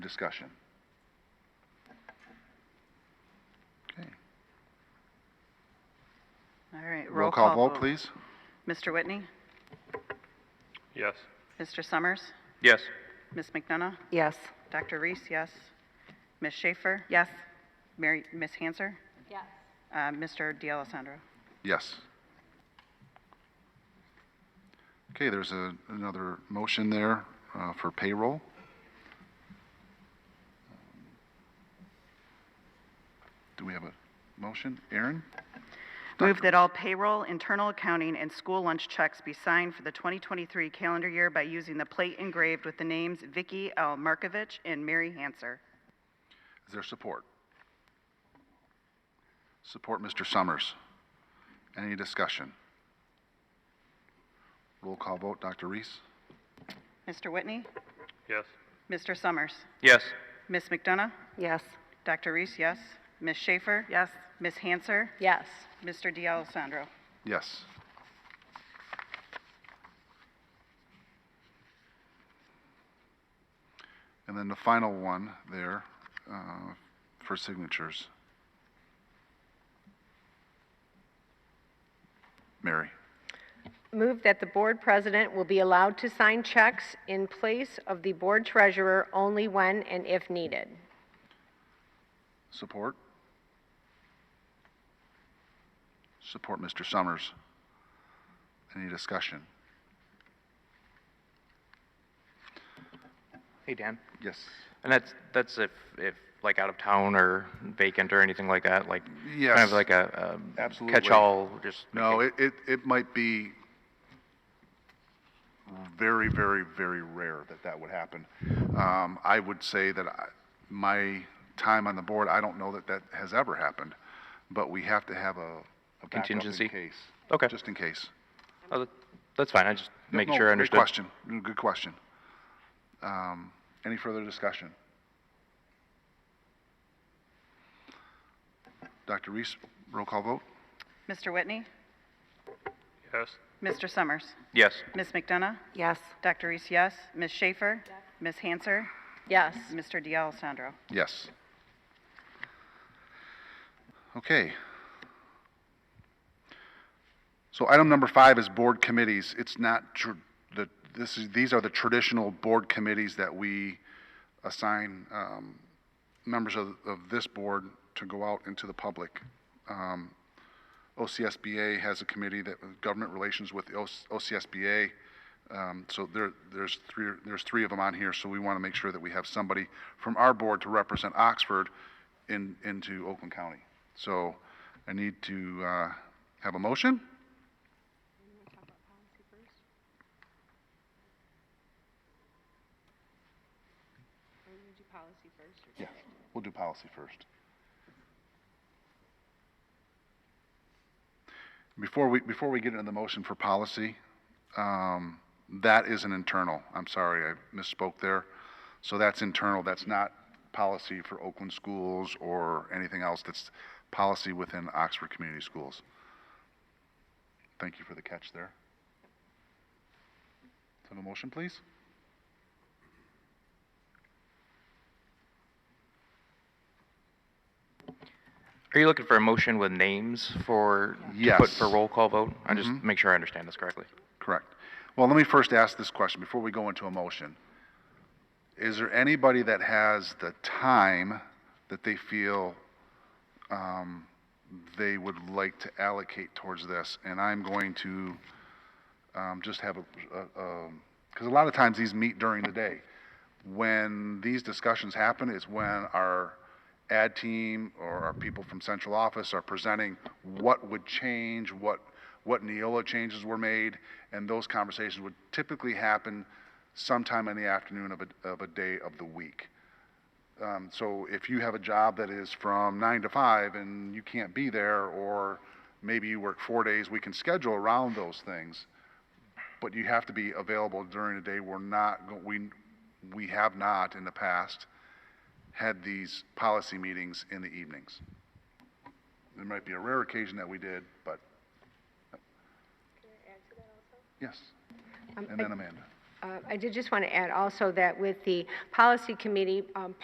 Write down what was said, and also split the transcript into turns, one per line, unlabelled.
discussion? Okay.
All right,
Roll call vote, please.
Mr. Whitney,
Yes.
Mr. Summers,
Yes.
Ms. McDonough,
Yes.
Dr. Reese, yes. Ms. Schaefer? Yes. Mary, Ms. Hanser?
Yes.
Uh, Mr. D'Alessandro?
Yes. Okay, there's a, another motion there uh, for payroll. Do we have a motion? Aaron?
Move that all payroll, internal accounting, and school lunch checks be signed for the 2023 calendar year by using the plate engraved with the names Vicky L. Markovich and Mary Hanser.
Is there support? Support Mr. Summers. Any discussion? Roll call vote, Dr. Reese?
Mr. Whitney?
Yes.
Mr. Summers?
Yes.
Ms. McDonough?
Yes.
Dr. Reese, yes. Ms. Schaefer?
Yes.
Ms. Hanser?
Yes.
Mr. D'Alessandro?
Yes. And then the final one there uh, for signatures. Mary,
Move that the board president will be allowed to sign checks in place of the board treasurer only when and if needed.
support? Support Mr. Summers. Any discussion?
Hey, Dan.
Yes.
And that's, that's if, if like out of town or vacant or anything like that, like kind
Yes.
of like a, um,
Absolutely.
catch-all, just.
No, it, it, it might be very, very, very rare that that would happen. Um, I would say that I, my time on the board, I don't know that that has ever happened, but we have to have a, a backup in
Contingency?
case.
Okay.
Just in case.
Oh, that- That's fine. I just making
No,
sure I understood.
Good question. Mm, Good question. Um, any further discussion? Dr. Reese, roll call vote?
Mr. Whitney?
Yes.
Mr. Summers?
Yes.
Ms. McDonough?
Yes.
Dr. Reese, yes. Ms. Schaefer? Ms. Hanser?
Yes.
Mr. D'Alessandro?
Yes. Okay. So item number five is board committees. It's not tr- the, this is, these are the traditional board committees that we assign, um, members of, of this board to go out into the public. Um, OCSBA has a committee that, government relations with the OC- OCSBA. Um, So there, there's three, there's three of them on here, so we want to make sure that we have somebody from our board to represent Oxford in, into Oakland County. So I need to uh, have a motion? Yeah, we'll do policy first. Before we, before we get into the motion for policy, um, that is an internal, I'm sorry, I misspoke there. So that's internal, that's not policy for Oakland schools or anything else, that's policy within Oxford Community Schools. Thank you for the catch there. Have a motion, please?
Are you looking for a motion with names for, to put
Yes. Mm-hmm.
for roll call vote? I just make sure I understand this correctly.
Correct. Well, let me first ask this question before we go into a motion. Is there anybody that has the time that they feel um, they would like to allocate towards this? And I'm going to um, just have a, because a lot of times these meet during the day. When these discussions happen is when our ad team or our people from central office are presenting what would change, what, what Neola changes were made, and those conversations would typically happen sometime in the afternoon of a, of a day of the week. Um, so if you have a job that is from nine to five and you can't be there, or maybe you work four days, we can schedule around those things. But you have to be available during the day. We're not, go- we, we have not in the past had these policy meetings in the evenings. There might be a rare occasion that we did, but. Can I add to Um, that also? Yes. And then Amanda.
Uh, I did just want to add also that with the policy committee, um,